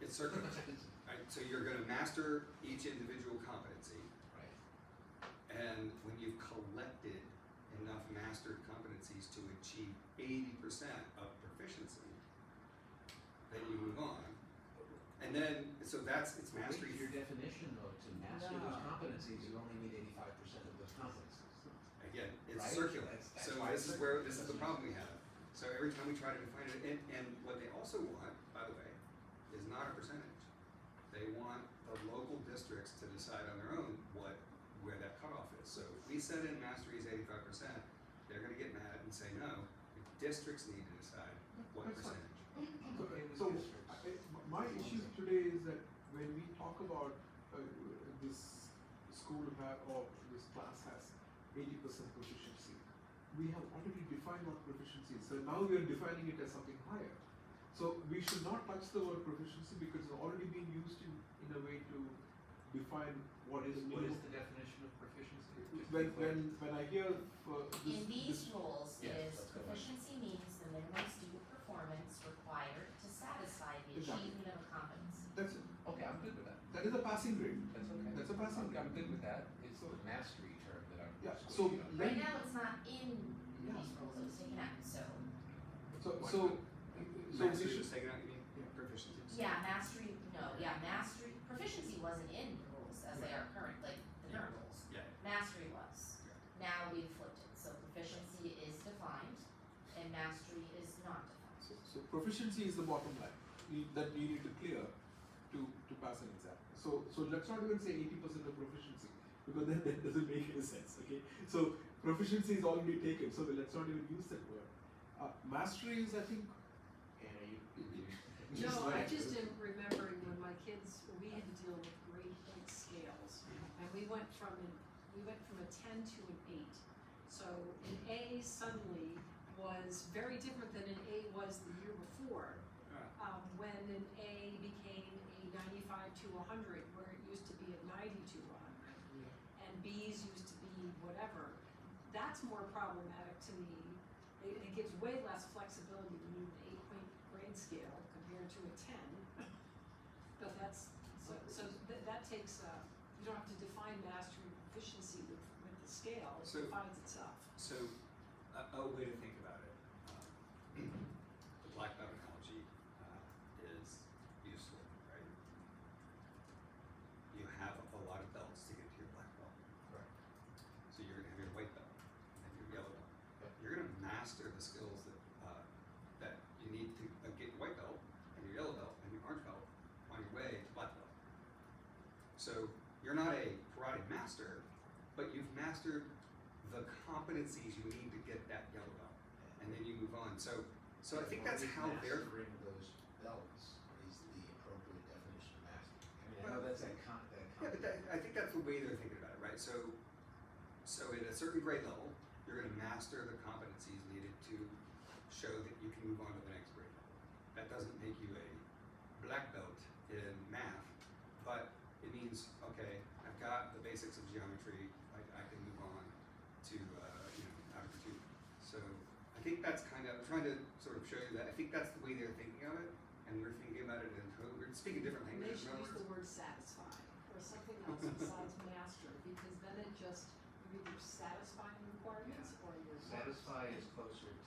It's circum, right, so you're gonna master each individual competency, Right. and when you've collected enough mastered competencies to achieve eighty percent of proficiency, then you move on. And then, so that's, it's Well, mastery wait, Your definition though, to master those No. competencies, you only need eighty-five percent of those competencies. Again, it's Right? circular. That's- that's So why this it's is where circular. this is the problem we have. So every time we try to define it, and, and what they also want, by the way, is not a percentage. They want the local districts to decide on their own what where that cutoff is. So if we set in mastery is eighty-five percent, they're gonna get mad and say no. The districts need to decide what That's fine. percentage. Okay, with So, districts. I- I- my issue today is that when we talk about uh, this school have, or this class has eighty percent proficiency, we have already defined what proficiency is, so now we are defining it as something higher. So we should not touch the word proficiency because it's already been used in, in a way to define what is What new. is the definition of proficiency? Just to be Mm-hmm. When, clear. when, when I hear for this. this- In these rules Yeah, is that's good. proficiency means the minimum student performance required to satisfy the Exactly. achievement of a competency. That's, it. Okay, I'm good with that, that is a passing grade, that's okay. that's a I'm, passing grade. I'm good with that, it's So- the mastery term that I'm Yeah, squishy so on. let Right now, it's not in Yeah. these rules, it was taken out, so, So, What? so, so we Mastery should, is taken out, you mean? Yeah. Proficiency. yeah, mastery, no, yeah, mastery, proficiency wasn't in the rules as they are current, like, the current rules. Yeah. Mastery was. Yeah. Now we've flipped it, so proficiency is defined and mastery is not so, defined. so proficiency is the bottom line, we, that we need to clear to, to pass an exam. So, so let's not even say eighty percent of proficiency, because then that doesn't make any sense, okay? So proficiency is already taken, so let's not even use that word. Uh, mastery is, I think, Anna, you, you- Just No, I like- just am remembering when my kids, we had to deal with grade point scales. Mm-hmm. And we went from, an we went from a ten to an eight. So an A suddenly was very different than an A was the year before. Um, when an A became a ninety-five to a hundred, where it used to be a ninety to a hundred. And Bs used to be whatever. That's more problematic to me it, it gives way less flexibility to move an eight point grade scale compared to a ten. But that's, so, so that, that takes, uh, you don't have to define mastery and proficiency with, with the scale, it So- defines itself. So, a, a way to think about it, um, the black belt analogy uh, is useful, right? You have a lot of belts to get to your black belt. Correct. So you're gonna have your white belt and your yellow belt. Yep. You're gonna master the skills that uh, that you need to uh, get your white belt and your yellow belt and your orange belt on your way to black belt. So you're not a karate master, but you've mastered the competencies you need to get that yellow belt, and then you move on. So, so I think that's how they're. Mastering those belts is the appropriate definition of mastery. I mean, I know Well- that's that con, that Yeah, but concept. that, I think that's the way they're thinking about it, right? So, so at a certain grade level, you're going to master the competencies needed to show that you can move on to the next grade level. That doesn't make you a black belt in math, but it means okay, I've got the basics of geometry. I, I can move on to uh, you know algebra two. So I think that's kind of I'm trying to sort of show you that I think that's the way they're thinking of it, and we're thinking about it in code. We're speaking different They languages. in should other use words. the word satisfy or something else besides master, because then it just, you're either satisfying requirements or you're not. Satisfy is closer to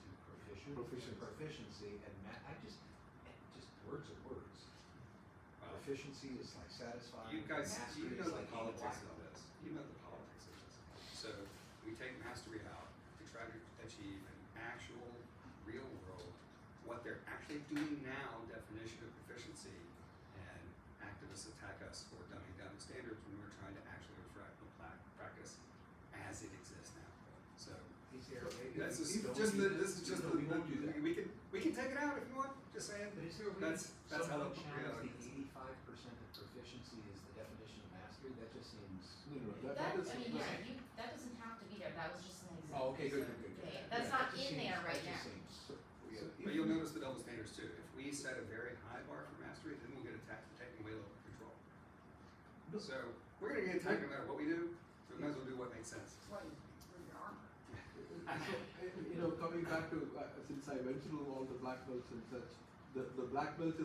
proficient. Proficiency. Proficiency and ma, I just, eh, just words are words. Wow. Proficiency is like satisfying. You guys, mastery you is know the like being a politics black of belt. this. You know the politics of this. So we take mastery out to try to achieve an actual, real world, what they're actually doing now definition of proficiency, and activists attack us for dumbing down the standards when we're trying to actually reflect the pla- practice as it exists now. So These are- maybe this we is don't just do the, that. this is just No, the, we won't do that. we can, we can take it out if you want, just saying. But is there a way to That's- that's how somehow the challenge the reality is. eighty-five percent of proficiency is the definition of mastery? That just seems. no, no, that, That, that is. I mean, yeah, you, that doesn't have to be there, that was just an example. Oh, okay, good, good, good, good. Yeah, that's Yeah, that not just in seems- there right That just seems. now. So- weird. so But if you'll we- notice the double standards too. If we set a very high bar for mastery, then we'll get attacked for taking away local control. No. So we're gonna get attacked no matter what we do, so we might as well do what makes sense. So, you know, coming back to, uh, since I went through all the black belts and such, the, the black belt